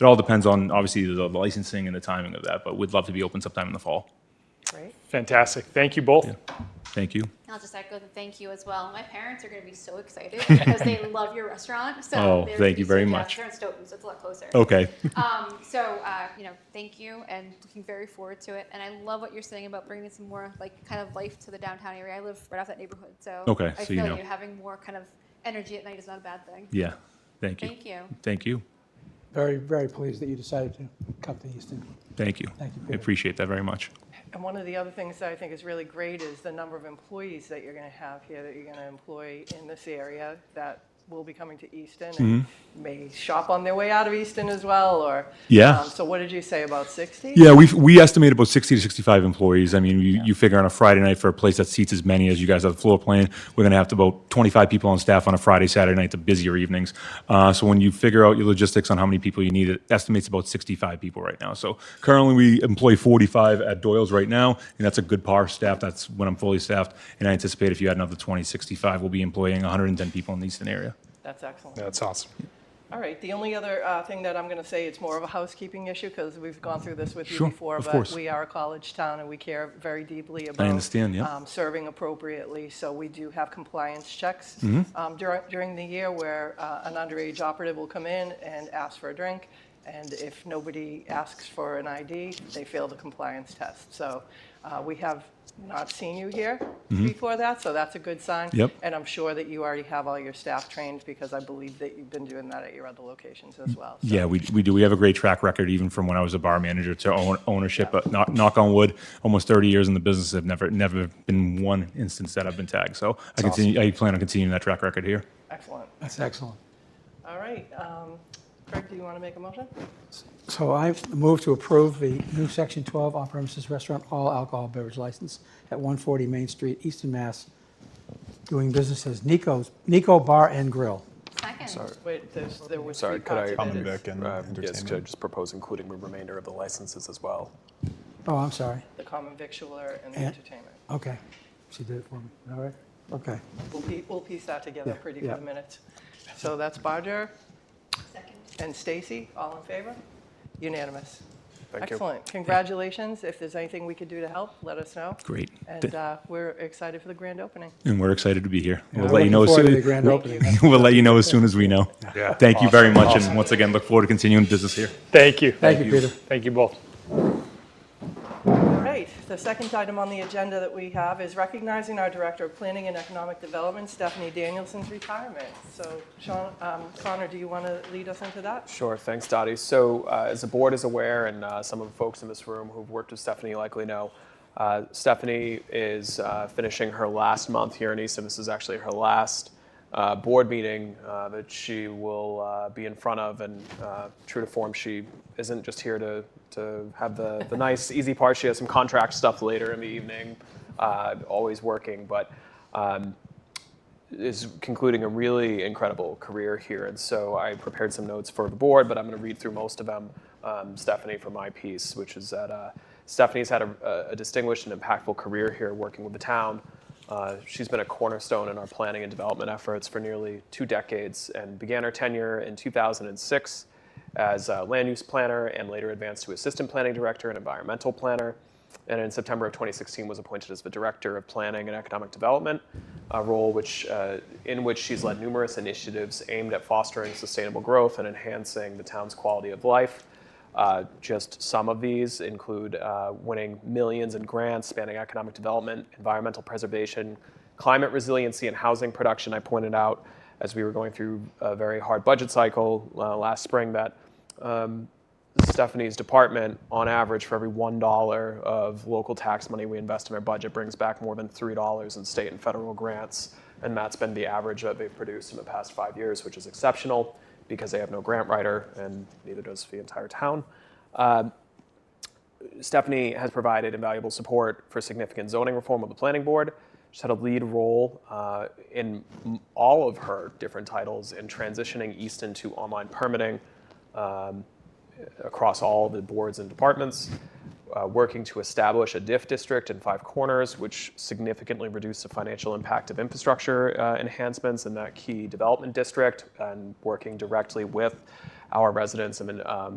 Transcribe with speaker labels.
Speaker 1: it all depends on obviously the licensing and the timing of that, but we'd love to be open sometime in the fall.
Speaker 2: Great.
Speaker 3: Fantastic. Thank you both.
Speaker 1: Thank you.
Speaker 4: I'll just echo the thank you as well. My parents are going to be so excited because they love your restaurant. So
Speaker 1: Oh, thank
Speaker 4: they're gonna be
Speaker 1: you
Speaker 4: so
Speaker 1: very
Speaker 4: jazzed.
Speaker 1: much. Oh.
Speaker 4: They're in Stoughton, so it's a lot closer.
Speaker 1: Okay.
Speaker 4: Um, so uh, you know, thank you, and looking very forward to it. And I love what you're saying about bringing some more like kind of life to the downtown area. I live right off that neighborhood, so
Speaker 1: Okay,
Speaker 4: I
Speaker 1: so
Speaker 4: feel
Speaker 1: you know.
Speaker 4: you having more kind of energy at night is not a bad thing.
Speaker 1: Yeah. Thank you.
Speaker 4: Thank you.
Speaker 1: Thank you.
Speaker 5: Very, very pleased that you decided to come to Easton.
Speaker 1: Thank you.
Speaker 5: Thank you,
Speaker 1: I
Speaker 5: Peter.
Speaker 1: appreciate that very much.
Speaker 2: And one of the other things that I think is really great is the number of employees that you're going to have here, that you're going to employ in this area that will be coming to Easton and may shop on their way out of Easton as well, or.
Speaker 1: Mm-hmm. Yeah.
Speaker 2: um, So what did you say, about 60?
Speaker 1: Yeah, we we estimate about 60 to 65 employees. I mean, you, you figure on a Friday night for a place that seats as many as you guys have the floor plan, we're going to have to about 25 people on staff on a Friday, Saturday night, the busier evenings. Uh, so when you figure out your logistics on how many people you need, it estimates about 65 people right now. So currently we employ 45 at Doyle's right now, and that's a good par staff. That's when I'm fully staffed. And I anticipate if you add another 20, 65, we'll be employing 110 people in the Eastern area.
Speaker 2: That's excellent.
Speaker 3: That's awesome.
Speaker 2: All right, the only other uh, thing that I'm going to say, it's more of a housekeeping issue because we've gone through this with you
Speaker 1: Sure,
Speaker 2: before.
Speaker 1: of course.
Speaker 2: But we are a college town and we care very deeply about.
Speaker 1: understand, yeah.
Speaker 2: um, Serving appropriately, so we do have compliance checks
Speaker 1: Mm-hmm.
Speaker 2: um, dur- during the year where uh, an underage operative will come in and ask for a drink. And if nobody asks for an ID, they fail the compliance test. So uh, we have not seen you here before that, so that's a good sign.
Speaker 1: Mm-hmm. Yep.
Speaker 2: And I'm sure that you already have all your staff trained because I believe that you've been doing that at your other locations as well. So-
Speaker 1: Yeah, we, we do. We have a great track record, even from when I was a bar manager to own, ownership. But knock, knock on wood, almost 30 years in the business, I've never never been one instance that I've been tagged. So I continue. I plan on continuing that track record here.
Speaker 2: Excellent.
Speaker 5: That's excellent.
Speaker 2: All right. um, Craig, do you want to make a motion?
Speaker 5: So I move to approve the new Section 12 on-premises restaurant all alcohol beverage license at 140 Main Street, Easton, Mass., doing business as Nico's, Nico Bar and Grill.
Speaker 4: Second.
Speaker 2: Wait, there's, there was three
Speaker 6: Sorry, could I?
Speaker 2: parts of it. It's
Speaker 6: and Yes, could I just propose including the remainder of the licenses as well?
Speaker 5: Oh, I'm sorry.
Speaker 2: The common victualler and the
Speaker 5: Yeah.
Speaker 2: entertainment.
Speaker 5: Okay. She did it for me. All right. Okay.
Speaker 2: We'll piece, we'll piece that together
Speaker 5: Yeah,
Speaker 2: pretty for
Speaker 5: yeah.
Speaker 2: the minutes. So that's Bodger
Speaker 4: Second.
Speaker 2: and Stacy, all in favor? Unanimous.
Speaker 6: Thank you.
Speaker 2: Excellent. Congratulations. If there's anything we could do to help, let us know.
Speaker 1: Great.
Speaker 2: And uh, we're excited for the grand opening.
Speaker 1: And we're excited to be here. We'll
Speaker 5: I'm
Speaker 1: let you know as
Speaker 5: looking
Speaker 1: soon.
Speaker 5: forward to the grand opening.
Speaker 1: we'll let you know as soon as we know.
Speaker 3: Yeah.
Speaker 1: Thank you very much, and once again, look forward to continuing business here.
Speaker 3: Thank you.
Speaker 5: Thank you, Peter.
Speaker 3: Thank you both.
Speaker 2: All right, the second item on the agenda that we have is recognizing our Director of Planning and Economic Development, Stephanie Danielson's retirement. So Sean, um, Connor, do you want to lead us into that?
Speaker 6: Sure, thanks, Dottie. So, uh, as the board is aware, and uh, some of the folks in this room who've worked with Stephanie likely know, uh, Stephanie is uh, finishing her last month here in Easton. This is actually her last uh, board meeting uh, that she will uh, be in front of. And uh, true to form, she isn't just here to, to have the, the nice, easy part. She has some contract stuff later in the evening, uh, always working. But um, is concluding a really incredible career here. And so I prepared some notes for the board, but I'm going to read through most of them, um, Stephanie, from my piece, which is that uh, Stephanie's had a, a distinguished and impactful career here working with the town. Uh, she's been a cornerstone in our planning and development efforts for nearly two decades and began her tenure in 2006 as a land use planner and later advanced to assistant planning director and environmental planner. And in September of 2016 was appointed as the director of planning and economic development, a role which, uh, in which she's led numerous initiatives aimed at fostering sustainable growth and enhancing the town's quality of life. Uh, just some of these include uh, winning millions in grants spanning economic development, environmental preservation, climate resiliency, and housing production. I pointed out as we were going through a very hard budget cycle uh, last spring that Stephanie's department, on average, for every $1 of local tax money we invest in our budget, brings back more than $3 in state and federal grants. And that's been the average that they've produced in the past five years, which is exceptional because they have no grant writer, and neither does the entire town. Um, Stephanie has provided invaluable support for significant zoning reform of the planning board. She's had a lead role uh, in m- all of her different titles in transitioning Easton to online permitting um, across all the boards and departments, uh, working to establish a DIF district in Five Corners, which significantly reduced the financial impact of infrastructure uh, enhancements in that key development district, and working directly with our residents and um,